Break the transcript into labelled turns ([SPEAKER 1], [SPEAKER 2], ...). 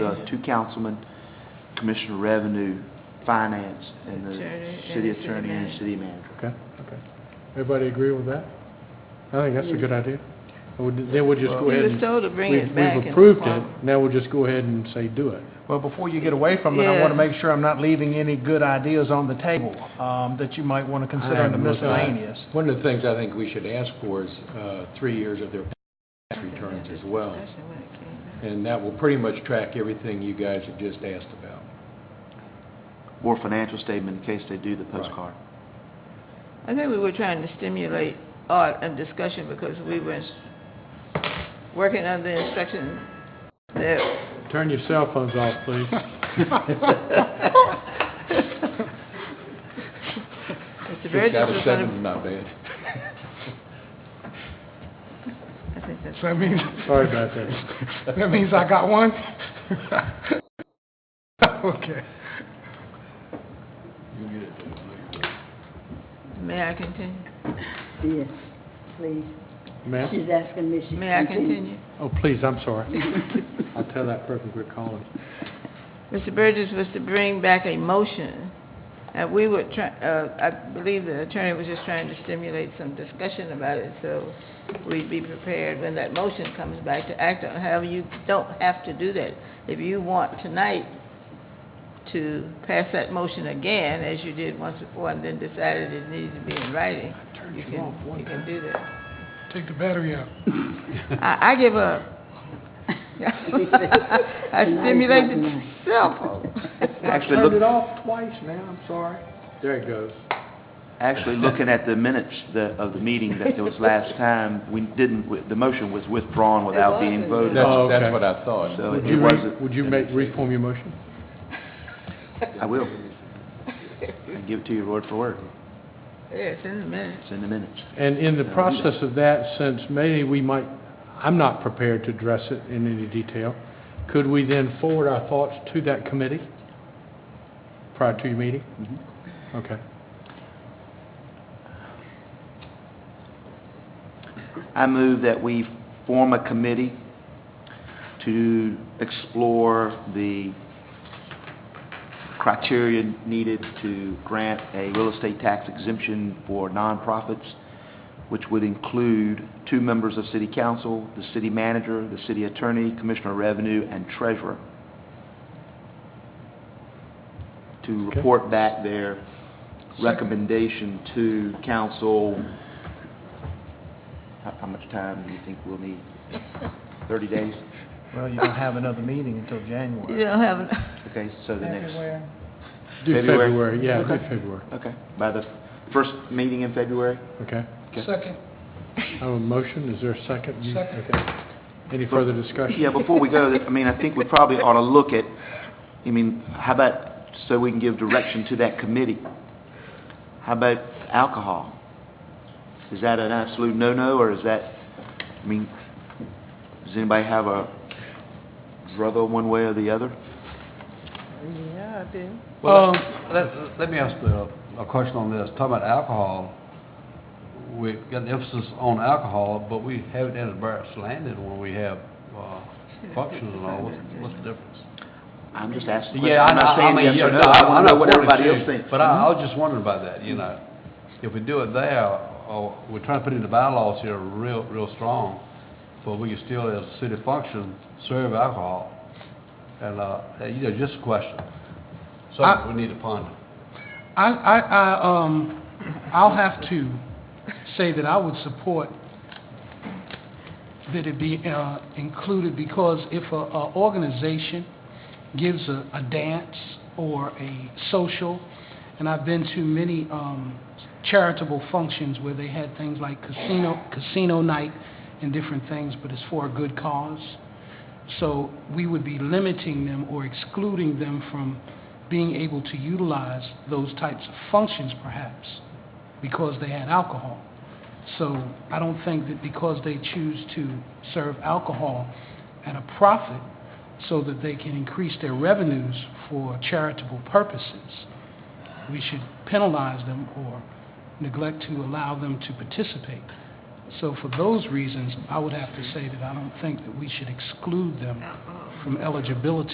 [SPEAKER 1] uh, two councilmen, Commissioner of Revenue, Finance, and the
[SPEAKER 2] Attorney and
[SPEAKER 1] city
[SPEAKER 2] the city
[SPEAKER 1] attorney and
[SPEAKER 2] manager.
[SPEAKER 1] city manager.
[SPEAKER 3] Okay, okay. Everybody agree with that? I think that's a good idea. Well, Then we'll just go
[SPEAKER 2] You
[SPEAKER 3] ahead
[SPEAKER 2] were
[SPEAKER 3] and...
[SPEAKER 2] told to bring
[SPEAKER 3] we've-
[SPEAKER 2] it back.
[SPEAKER 3] We've
[SPEAKER 2] and-
[SPEAKER 3] approved it, now we'll just go ahead and say do it.
[SPEAKER 4] Well, before you get away from it, I want to
[SPEAKER 2] Yeah.
[SPEAKER 4] make sure I'm not leaving any good ideas on the table um, that you might want to consider in the
[SPEAKER 3] haven't looked at it.
[SPEAKER 4] miscellaneous.
[SPEAKER 5] One of the things I think we should ask for is uh, three years of their tax returns as well,
[SPEAKER 2] Especially when it came out.
[SPEAKER 5] and that will pretty much track everything you guys have just asked about.
[SPEAKER 1] Or financial statement in case they do the postcard.
[SPEAKER 2] I think we were trying to stimulate art and discussion because we were working under the instruction that
[SPEAKER 3] Turn your cell phones off, please.
[SPEAKER 2] Mr. Burgess
[SPEAKER 5] Out of
[SPEAKER 2] was
[SPEAKER 5] seven,
[SPEAKER 2] gonna,
[SPEAKER 5] Not bad.
[SPEAKER 2] I think that's,
[SPEAKER 4] So that means,
[SPEAKER 3] Sorry about that.
[SPEAKER 4] that means I got one? Okay.
[SPEAKER 2] may I continue?
[SPEAKER 6] Yes, please.
[SPEAKER 3] Ma'am?
[SPEAKER 6] She's asking me if she
[SPEAKER 2] May I
[SPEAKER 6] can
[SPEAKER 2] continue?
[SPEAKER 3] Oh, please, I'm sorry. I'll tell that person we're calling.
[SPEAKER 2] Mr. Burgess was to bring back a motion, and we were try, uh, I believe the attorney was just trying to stimulate some discussion about it, so we'd be prepared when that motion comes back to act on, however, you don't have to do that. If you want tonight to pass that motion again, as you did once before, and then decided it needed to be in writing, you can, you can do that.
[SPEAKER 4] Take the battery out.
[SPEAKER 2] I, I give up. I stimulated myself.
[SPEAKER 1] Actually, look,
[SPEAKER 3] off twice now, I'm sorry. There it goes.
[SPEAKER 1] actually, looking at the minutes the- of the meeting that was last time, we didn't, the motion was withdrawn without being
[SPEAKER 2] wasn't.
[SPEAKER 1] voted on.
[SPEAKER 3] Oh, okay.
[SPEAKER 5] That's, that's what I thought.
[SPEAKER 1] So
[SPEAKER 3] Would
[SPEAKER 1] it
[SPEAKER 3] you, re-
[SPEAKER 1] wasn't.
[SPEAKER 3] would you make, reform your motion?
[SPEAKER 1] I will. I give it to you word for word.
[SPEAKER 2] Yes, in a minute.
[SPEAKER 1] It's in the minutes.
[SPEAKER 3] And in the process of that, since maybe we might, I'm not prepared to address it in any detail, could we then forward our thoughts to that committee prior to your meeting? Okay.
[SPEAKER 1] I move that we form a committee to explore the criteria needed to grant a real estate tax exemption for nonprofits, which would include two members of city council, the city manager, the city attorney, commissioner of revenue, and treasurer, to
[SPEAKER 3] Okay.
[SPEAKER 1] report back their recommendation to council how, how much time do you think we'll need? Thirty days?
[SPEAKER 4] Well, you don't have another meeting until January.
[SPEAKER 2] You don't have,
[SPEAKER 1] Okay, so the next.
[SPEAKER 3] Do
[SPEAKER 1] February.
[SPEAKER 3] February, yeah, do
[SPEAKER 1] Okay.
[SPEAKER 3] February,
[SPEAKER 1] Okay, by the first meeting in February?
[SPEAKER 3] okay.
[SPEAKER 4] Second.
[SPEAKER 3] I have a motion, is there a second? You- okay. Any further discussion?
[SPEAKER 1] Yeah, before we go, I mean, I think we probably ought to look at, I mean, how about, so we can give direction to that committee? How about alcohol? Is that an absolute no-no, or is that, I mean, does anybody have a brother one way or the other?
[SPEAKER 2] yeah, I do.
[SPEAKER 7] Well, let, let me ask a, a question on this. Talking about alcohol, we've got an emphasis on alcohol, but we haven't had a bar slanted when we have, uh, functions and all. What's, what's the difference?
[SPEAKER 1] I'm just asking. a question.
[SPEAKER 7] Yeah, I,
[SPEAKER 1] I'm not
[SPEAKER 7] I
[SPEAKER 1] saying
[SPEAKER 7] mean,
[SPEAKER 1] yes
[SPEAKER 7] yeah,
[SPEAKER 1] or
[SPEAKER 7] no,
[SPEAKER 1] no. I
[SPEAKER 7] I'm I'm
[SPEAKER 1] wanna know
[SPEAKER 7] not
[SPEAKER 1] what everybody else
[SPEAKER 7] wanting
[SPEAKER 1] thinks. Mm-hmm.
[SPEAKER 7] to, but I, I was just wondering about that, you know. If we do it there, or we're trying to put in the bylaws here real, real strong, but we can still, as a city function, serve alcohol. And, uh, you know, just a question.
[SPEAKER 4] I-
[SPEAKER 7] Something we need to ponder.
[SPEAKER 4] I, I, I, um, I'll have to say that I would support that it be, uh, included, because if a, a organization gives a, a dance or a social, and I've been to many, um, charitable functions where they had things like casino, casino night and different things, but it's for a good cause. So we would be limiting them or excluding them from being able to utilize those types of functions perhaps because they had alcohol. So I don't think that because they choose to serve alcohol at a profit so that they can increase their revenues for charitable purposes, we should penalize them or neglect to allow them to participate. So for those reasons, I would have to say that I don't think that we should exclude them from eligibility